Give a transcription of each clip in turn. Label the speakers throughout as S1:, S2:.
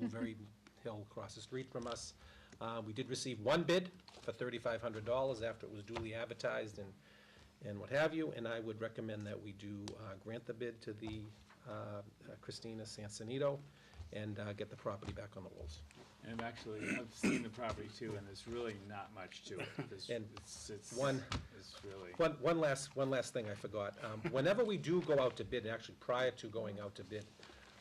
S1: Wolverine uh, Hill across the street from us. Uh, We did receive one bid for $3,500 after it was duly advertised and, and what have you, and I would recommend that we do uh, grant the bid to the uh, Christina Sansonito and uh, get the property back on the rolls.
S2: And I've actually, I've seen the property too, and there's really not much to it. There's-
S1: And
S2: it's- it's-
S1: one-
S2: It's really,
S1: One, one last, one last thing I forgot. Um, Whenever we do go out to bid, and actually prior to going out to bid,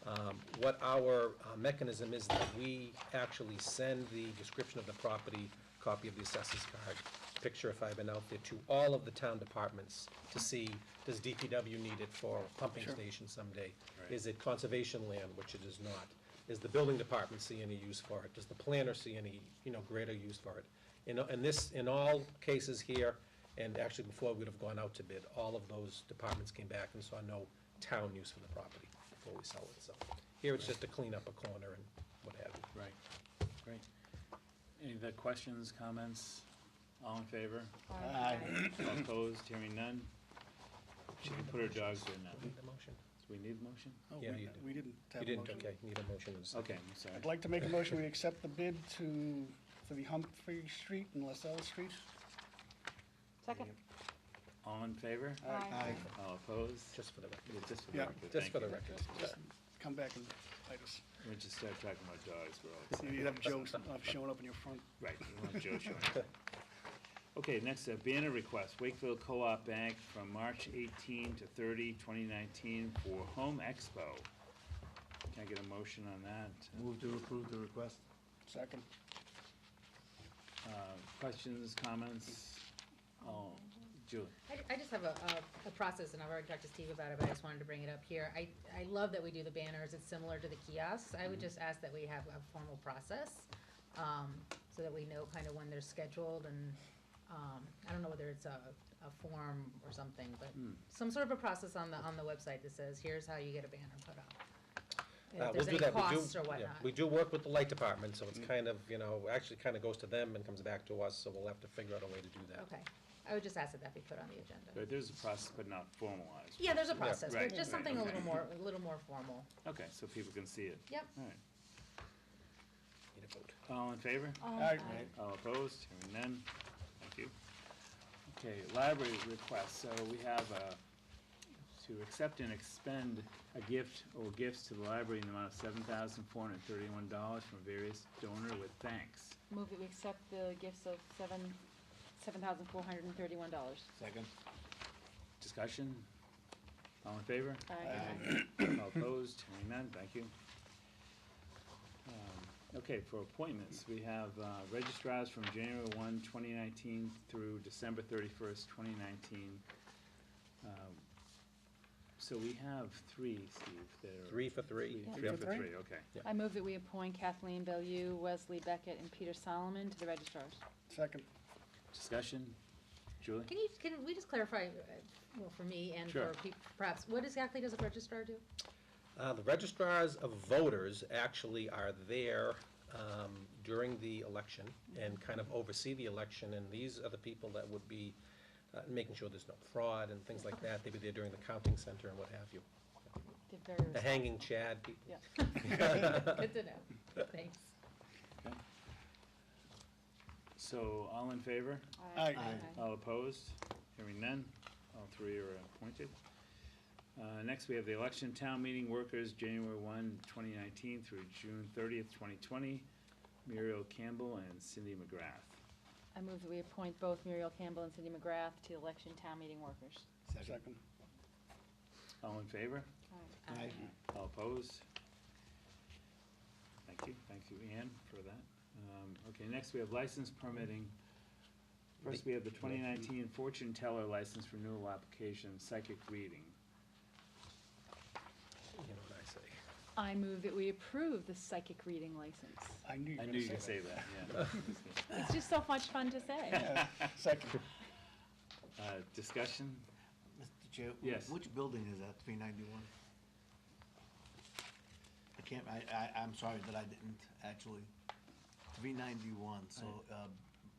S1: um, what our uh, mechanism is that we actually send the description of the property, copy of the assessor's card, picture if I've been out there, to all of the town departments to see, does DPW need it for a pumping station someday?
S2: Right.
S1: Is it conservation land, which it is not? Is the building department see any use for it? Does the planner see any, you know, greater use for it? In, in this, in all cases here, and actually before we'd have gone out to bid, all of those departments came back and saw no town use for the property before we sell it, so. Here it's just to clean up a corner and what have you.
S2: right, great. Any other questions, comments? All in favor? All opposed? Hearing none? Should we put our dogs in now? Do
S1: Need a motion?
S2: we need a motion?
S3: Oh,
S1: Yeah,
S3: we
S1: you
S3: d-
S1: do.
S3: we didn't
S1: You
S3: have a
S1: didn't,
S3: motion.
S1: okay, need a motion. and a second.
S2: Okay, I'm sorry.
S3: I'd like to make a motion, we accept the bid to, for the Humphrey Street and LaSalle Street.
S4: Second?
S2: All in favor?
S4: Aye.
S2: All opposed?
S1: Just for the record,
S2: Yeah, Just for the
S3: Yeah.
S2: record.
S1: just for
S2: thank
S1: the
S2: you.
S1: record.
S3: Just Come back and bite us.
S2: We just start talking about dogs, we're all
S3: So You'd have Joe s- uh, showing up in your front.
S2: Right, we want Joe showing up. Okay, next, a banner request, Wakefield Co-op Bank from March 18 to 30, 2019 for Home Expo. Can I get a motion on that?
S5: Move to approve the request.
S3: Second.
S2: Uh, Questions, comments? Oh, Julie,
S4: I, I just have a, a, a process, and I've already talked to Steve about it, but I just wanted to bring it up here. I, I love that we do the banners, it's similar to the kiosks. I would
S1: Mm-hmm.
S4: just ask that we have a formal process, um, so that we know kind of when they're scheduled and, um, I don't know whether it's a, a form or something, but
S1: Hmm.
S4: some sort of a process on the, on the website that says, here's how you get a banner put up. And
S1: Uh,
S4: If
S1: we'll
S4: there's
S1: do
S4: any
S1: that. We do-
S4: costs or
S1: yeah,
S4: whatnot.
S1: We do work with the light department, so it's
S2: Mm.
S1: kind of, you know, actually kind of goes to them and comes back to us, so we'll have to figure out a way to do that.
S4: Okay, I would just ask that that be put on the agenda.
S2: But there's a process, but not formalized.
S4: Yeah, there's a
S2: right?
S4: process, but
S2: Right,
S4: just
S2: right,
S4: something a
S2: okay.
S4: little more, a little more formal.
S2: Okay, so people can see it.
S4: Yep.
S2: All right.
S1: Need a vote.
S2: All in favor?
S6: Um,
S3: Aye.
S2: All opposed? Hearing none? Thank you. Okay, library request, so we have uh, to accept and expend a gift or gifts to the library in the amount of seven thousand four hundred thirty-one dollars from various donor with thanks.
S6: Move that we accept the gifts of seven, seven thousand four hundred and thirty-one dollars.
S5: Second.
S2: Discussion? All in favor?
S6: Aye.
S2: All opposed? Hearing none? Thank you. Um, Okay, for appointments, we have uh, registrars from January 1, 2019 through December 31st, 2019. Um, So we have three, Steve, that are.
S1: Three for three.
S2: Three for three, okay.
S6: I move that we appoint Kathleen Bellew, Wesley Beckett, and Peter Solomon to the registrars.
S3: Second.
S2: Discussion? Julie?
S4: Can you, can we just clarify, uh, well, for me and
S2: Sure.
S4: for peop- perhaps, what exactly does a registrar do?
S1: Uh, The registrars of voters actually are there um, during the election and kind of oversee the election, and these are the people that would be uh, making sure there's no fraud and things like that. They'd be there during the counting center and what have you.
S6: They're very
S1: The hanging Chad people.
S6: Yeah.
S4: Good to know, thanks.
S2: So, all in favor?
S3: Aye.
S2: All opposed? Hearing none, all three are appointed. Uh, Next, we have the election town meeting workers, January 1, 2019 through June 30th, 2020, Muriel Campbell and Cindy McGrath.
S6: I move that we appoint both Muriel Campbell and Cindy McGrath to election town meeting workers.
S3: Second.
S2: All in favor?
S5: Aye.
S2: All opposed? Thank you, thank you, Ann, for that. Um, Okay, next, we have license permitting. First, we have the 2019 fortune teller license renewal application, psychic reading.
S1: You know what I say.
S6: I move that we approve the psychic reading license.
S3: I knew you
S2: I
S3: were
S2: knew
S3: going
S2: you could say that, yeah.
S6: It's just so much fun to say.
S3: Second.
S2: Uh, discussion?
S5: Mr. Chair? wh-
S2: Yes.
S5: Which building is that, three ninety-one? I can't, I, I, I'm sorry that I didn't, actually. Three ninety-one, so, uh,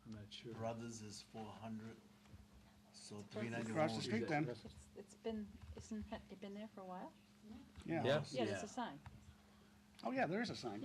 S2: I'm not sure.
S5: Brothers is four hundred, so three ninety-one.
S3: Across the street then.
S6: It's- It's been, isn't it been there for a while?
S3: Yeah.
S1: Yeah.
S6: Yeah, there's
S2: Yeah.
S6: a sign.
S3: Oh, yeah, there is a sign.